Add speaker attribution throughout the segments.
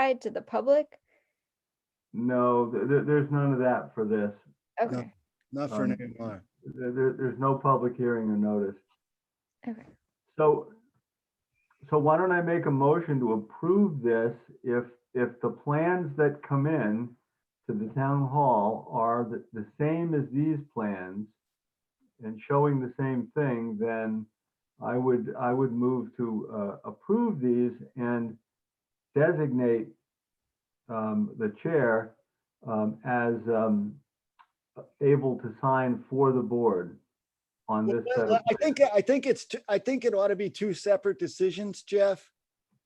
Speaker 1: notified to the public?
Speaker 2: No, th- th- there's none of that for this.
Speaker 1: Okay,
Speaker 3: Not for an
Speaker 2: Um,
Speaker 3: AMR.
Speaker 2: There, there- there's no public hearing or notice.
Speaker 1: Okay.
Speaker 2: So, so why don't I make a motion to approve this if, if the plans that come in to the town hall are the, the same as these plans and showing the same thing, then I would, I would move to, uh, approve these and designate, um, the chair, um, as, um, able to sign for the board on this set of.
Speaker 3: I think, I think it's, two- I think it ought to be two separate decisions, Jeff.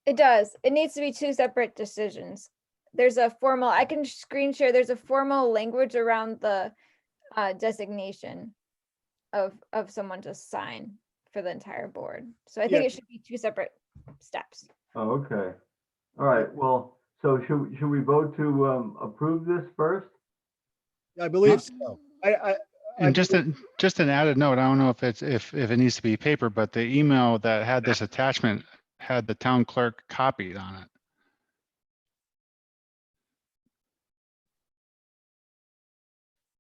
Speaker 1: it does. It needs to be two separate decisions. There's a formal, I can screen share, there's a formal language around the uh, designation of, of someone to sign for the entire board. So I think
Speaker 3: Yeah.
Speaker 1: it should be two separate steps.
Speaker 2: Oh, okay. All right, well, so should, should we vote to um, approve this first?
Speaker 3: I believe so. I, I, I-
Speaker 4: And just, a- just an added note, I don't know if it's, if, if it needs to be paper, but the email that had this attachment had the town clerk copied on it.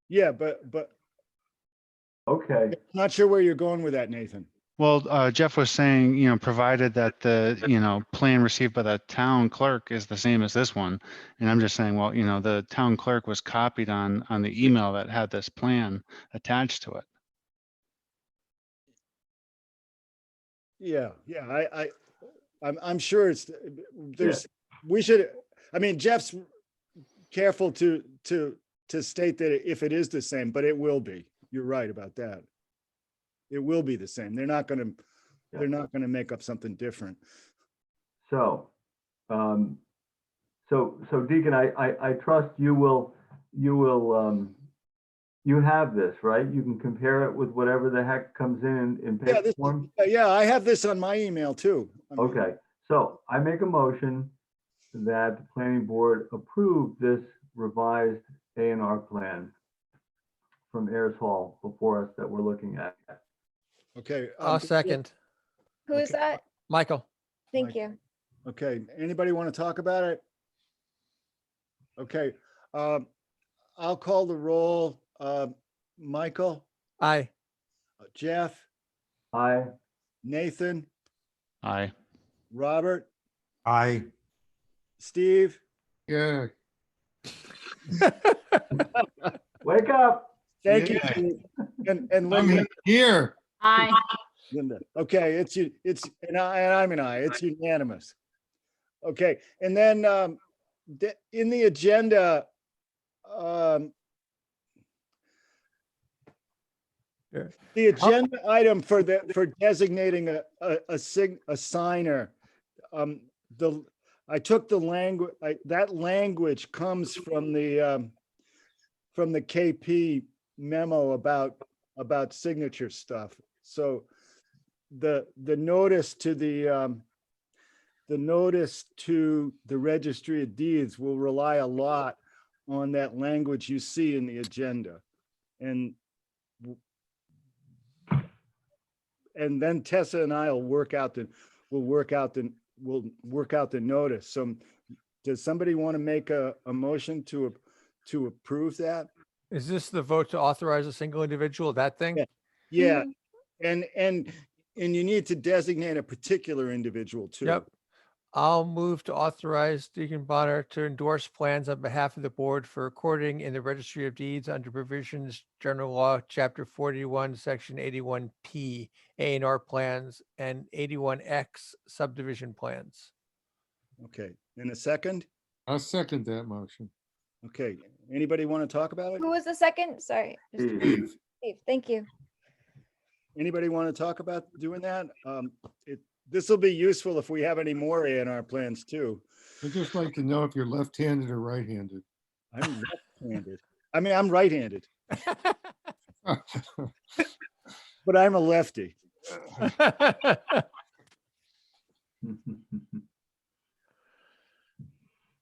Speaker 3: yeah, but, but
Speaker 2: Okay,
Speaker 3: not sure where you're going with that, Nathan.
Speaker 4: Well, uh, Jeff was saying, you know, provided that the, you know, plan received by the town clerk is the same as this one. And I'm just saying, well, you know, the town clerk was copied on, on the email that had this plan attached to it.
Speaker 3: Yeah, yeah, I, I, I'm, I'm sure it's, there's, we should, I mean, Jeff's careful to, to, to state that if it is the same, but it will be. You're right about that. It will be the same. They're not gonna, they're not gonna make up something different.
Speaker 2: so, um, so, so Deacon, I, I, I trust you will, you will, um, you have this, right? You can compare it with whatever the heck comes in in
Speaker 3: Yeah,
Speaker 2: paper
Speaker 3: this,
Speaker 2: form?
Speaker 3: yeah, yeah, I have this on my email too. I mean,
Speaker 2: Okay, so I make a motion that the planning board approve this revised A and R plan from Ayers Hall before us that we're looking at.
Speaker 3: Okay.
Speaker 5: I'll
Speaker 3: um,
Speaker 5: second.
Speaker 1: Who is
Speaker 3: Okay.
Speaker 1: that?
Speaker 5: Michael,
Speaker 1: Thank
Speaker 3: Michael.
Speaker 1: you.
Speaker 3: Okay, anybody want to talk about it? Okay, um, I'll call the roll. Uh, Michael,
Speaker 5: aye.
Speaker 3: Jeff,
Speaker 2: Aye.
Speaker 3: Nathan,
Speaker 4: Aye.
Speaker 3: Robert,
Speaker 6: Aye.
Speaker 3: Steve,
Speaker 6: Yeah.
Speaker 2: Wake up.
Speaker 3: thank you. And, and Linda,
Speaker 6: I'm here.
Speaker 7: Aye.
Speaker 3: Linda. Okay, it's, you. it's, and I, and I'm an I, it's unanimous. Okay, and then, um, the- in the agenda, um,
Speaker 5: Sure.
Speaker 3: The agenda item for the, for designating a, a, a sig, a signer. Um, the, I took the language, I, that language comes from the, um, from the KP memo about, about signature stuff. So the, the notice to the, um, the notice to the registry of deeds will rely a lot on that language you see in the agenda. And and then Tessa and I will work out the, we'll work out the, we'll work out the notice. So does somebody want to make a, a motion to, ap- to approve that?
Speaker 5: Is this the vote to authorize a single individual, that thing?
Speaker 3: Yeah. Yeah, and, and, and you need to designate a particular individual too.
Speaker 5: Yep. I'll move to authorize Deacon Bonner to endorse plans on behalf of the board for recording in the registry of deeds under provisions, general law, chapter forty-one, section eighty-one P, A and R plans and eighty-one X subdivision plans.
Speaker 3: Okay, in a second?
Speaker 6: I'll second that motion.
Speaker 3: Okay, anybody want to talk about it?
Speaker 1: Who was the second? Sorry. just-
Speaker 2: Steve.
Speaker 1: Steve, Thank you.
Speaker 3: Anybody want to talk about doing that? Um, it, this will be useful if we have any more A and R plans too.
Speaker 6: I'd just like to know if you're left-handed or right-handed.
Speaker 3: I'm left-handed. I mean, I'm right-handed, but I'm a lefty.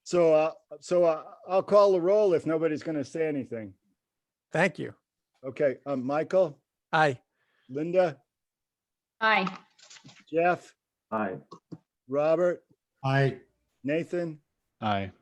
Speaker 3: So, uh, so uh, I'll call the roll if nobody's going to say anything.
Speaker 5: Thank you.
Speaker 3: Okay, um, Michael,
Speaker 5: Aye.
Speaker 3: Linda,
Speaker 7: Aye.
Speaker 3: Jeff,
Speaker 2: Aye.
Speaker 3: Robert,
Speaker 6: Aye.
Speaker 3: Nathan,
Speaker 4: Aye.